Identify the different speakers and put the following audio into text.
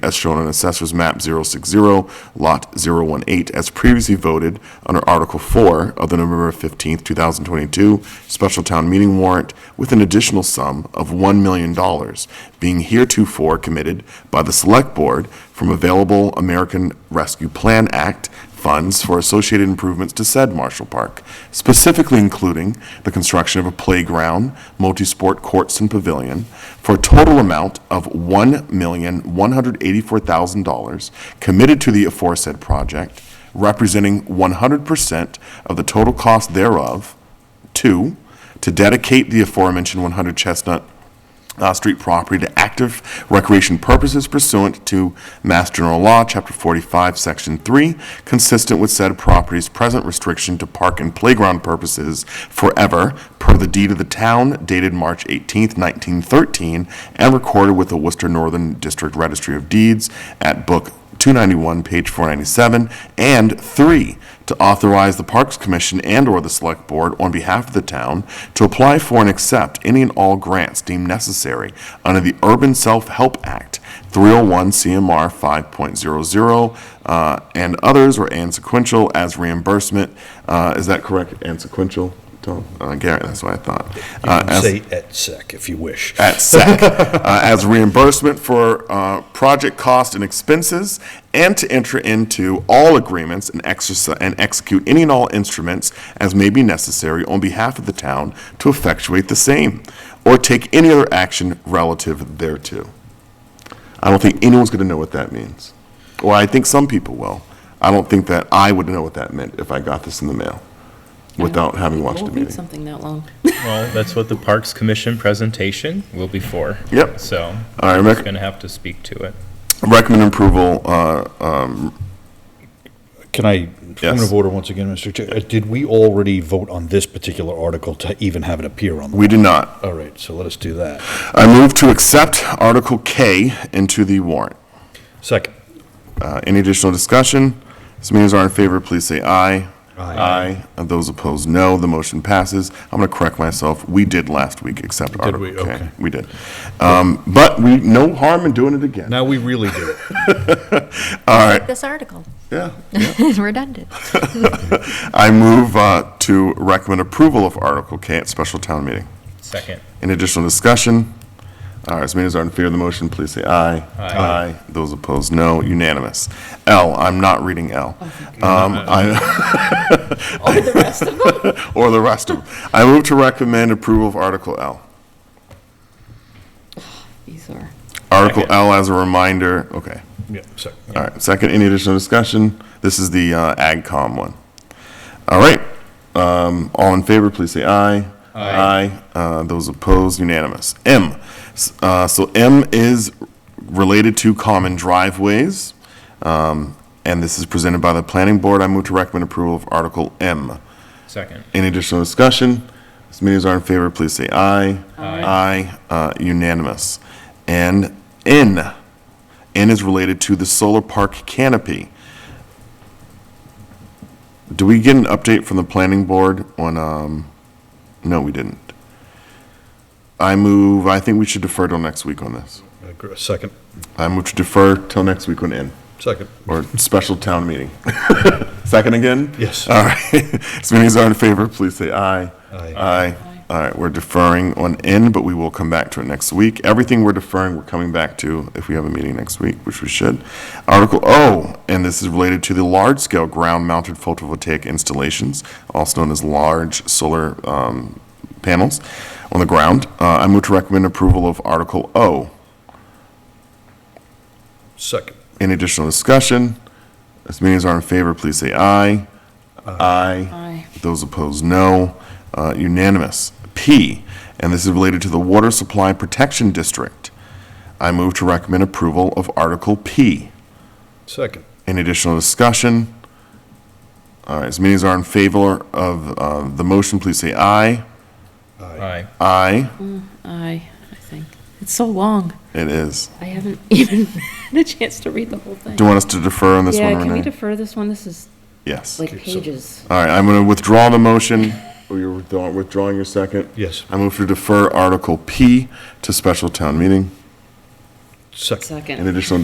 Speaker 1: as shown on Assessor's Map 060, Lot 018, as previously voted under Article 4 of the November 15, 2022 Special Town Meeting Warrant, with an additional sum of $1 million being heretofore committed by the Select Board from available American Rescue Plan Act funds for associated improvements to said Marshall Park, specifically including the construction of a playground, multi-sport courts and pavilion, for a total amount of $1,184,000 committed to the aforesaid project, representing 100% of the total cost thereof. Two, to dedicate the aforementioned 100 Chestnut uh, street property to active recreation purposes pursuant to Mass General Law, Chapter 45, Section 3, consistent with said property's present restriction to park and playground purposes forever, per the deed of the town dated March 18, 1913, and recorded with the Worcester Northern District Registry of Deeds at Book 291, page 497, and three, to authorize the Parks Commission and/or the Select Board on behalf of the town to apply for and accept any and all grants deemed necessary under the Urban Self-Help Act, 301 CMR 5.00, uh, and others, or and sequential as reimbursement. Uh, Is that correct? And sequential, Tom? Uh, Garrett, that's what I thought. Uh, as-
Speaker 2: Say et sec if you wish.
Speaker 1: at SEC uh, as reimbursement for uh, project cost and expenses, and to enter into all agreements and exercise, and execute any and all instruments as may be necessary on behalf of the town to effectuate the same, or take any other action relative thereto. I don't think anyone's going to know what that means. Well, I think some people will. I don't think that I would know what that meant if I got this in the mail without having watched the
Speaker 3: Won't read
Speaker 1: meeting.
Speaker 3: something that long.
Speaker 4: Well, that's what the Parks Commission presentation will be for.
Speaker 1: Yep.
Speaker 4: So,
Speaker 1: All right,
Speaker 4: who's
Speaker 1: Rick.
Speaker 4: going to have to speak to it?
Speaker 1: Recommend approval, uh, um,
Speaker 2: Can I, point
Speaker 1: Yes.
Speaker 2: of order once again, Mr. Chair? Uh, Did we already vote on this particular article to even have it appear on? the-
Speaker 1: we do not.
Speaker 2: All right, so let us do that.
Speaker 1: I move to accept Article K into the warrant.
Speaker 2: Second.
Speaker 1: Uh, Any additional discussion? As many as are in favor, please say aye. Aye. And those opposed, no. The motion passes. I'm going to correct myself. We did last week accept
Speaker 2: Did
Speaker 1: Article
Speaker 2: we? Okay.
Speaker 1: K. We did. Um, But we, no harm in doing it again.
Speaker 2: Now we really do.
Speaker 3: This article,
Speaker 1: Yeah.
Speaker 3: redundant.
Speaker 1: I move uh, to recommend approval of Article K at special town meeting.
Speaker 4: Second.
Speaker 1: Any additional discussion? All right, as many as are in favor of the motion, please say aye. Aye. Those opposed, no. Unanimous. L, I'm not reading L.
Speaker 3: Oh,
Speaker 1: Um, I-
Speaker 3: The rest of them?
Speaker 1: Or the rest of them. I move to recommend approval of Article L.
Speaker 3: These are,
Speaker 1: Article
Speaker 4: Second.
Speaker 1: L as a reminder, okay.
Speaker 2: Yeah, second.
Speaker 1: All right, second, any additional discussion? This is the uh, AgCom one. All right, um, all in favor, please say aye. Aye. Uh, Those opposed, unanimous. M, S- uh, so M is related to common driveways, um, and this is presented by the planning board. I move to recommend approval of Article M.
Speaker 4: Second.
Speaker 1: Any additional discussion? As many as are in favor, please say aye. Aye. uh, unanimous. And N, N is related to the solar park canopy. Do we get an update from the planning board on, um, no, we didn't. I move, I think we should defer till next week on this.
Speaker 2: Agree- Uh, Second,
Speaker 1: I move to defer till next week on N,
Speaker 2: second.
Speaker 1: or special town meeting. Second again?
Speaker 2: Yes.
Speaker 1: All right. As many as are in favor, please say aye.
Speaker 2: Aye.
Speaker 1: Aye. All right, we're deferring on N, but we will come back to it next week. Everything we're deferring, we're coming back to if we have a meeting next week, which we should. Article O, and this is related to the large-scale ground-mounted photovoltaic installations, also known as large solar um, panels on the ground. Uh, I move to recommend approval of Article O.
Speaker 2: Second.
Speaker 1: Any additional discussion? As many as are in favor, please say aye. Aye.
Speaker 3: aye,
Speaker 1: Those opposed, no. Uh, Unanimous. P, and this is related to the Water Supply Protection District. I move to recommend approval of Article P.
Speaker 2: Second.
Speaker 1: Any additional discussion? All right, as many as are in favor of uh, the motion, please say aye.
Speaker 4: Aye.
Speaker 1: Aye.
Speaker 3: aye, I think. It's so long,
Speaker 1: It is.
Speaker 3: I haven't even had a chance to read the whole thing.
Speaker 1: Do you want us to defer on this one,
Speaker 3: Yeah,
Speaker 1: Renee?
Speaker 3: can we defer this one? This is
Speaker 1: Yes.
Speaker 3: like pages.
Speaker 1: All right, I'm going to withdraw the motion. Oh, you're withdraw- withdrawing your second?
Speaker 2: Yes.
Speaker 1: I move to defer Article P to special town meeting.
Speaker 2: Second.
Speaker 3: Second.
Speaker 1: Any additional